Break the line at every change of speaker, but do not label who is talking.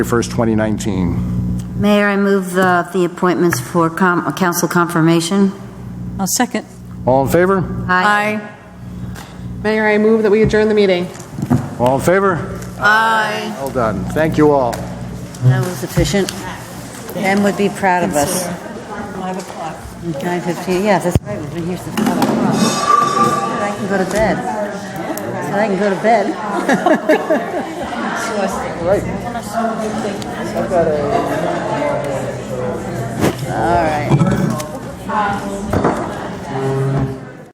1st, 2019.
Mayor, I move the the appointments for com- council confirmation.
I'll second.
All in favor?
Aye.
Mayor, I move that we adjourn the meeting.
All in favor? Aye. Well done. Thank you all.
That was efficient. Ben would be proud of us. 9 o'clock. 9:15, yeah, that's right, we've been here since 5 o'clock. Said I can go to bed. Said I can go to bed. All right.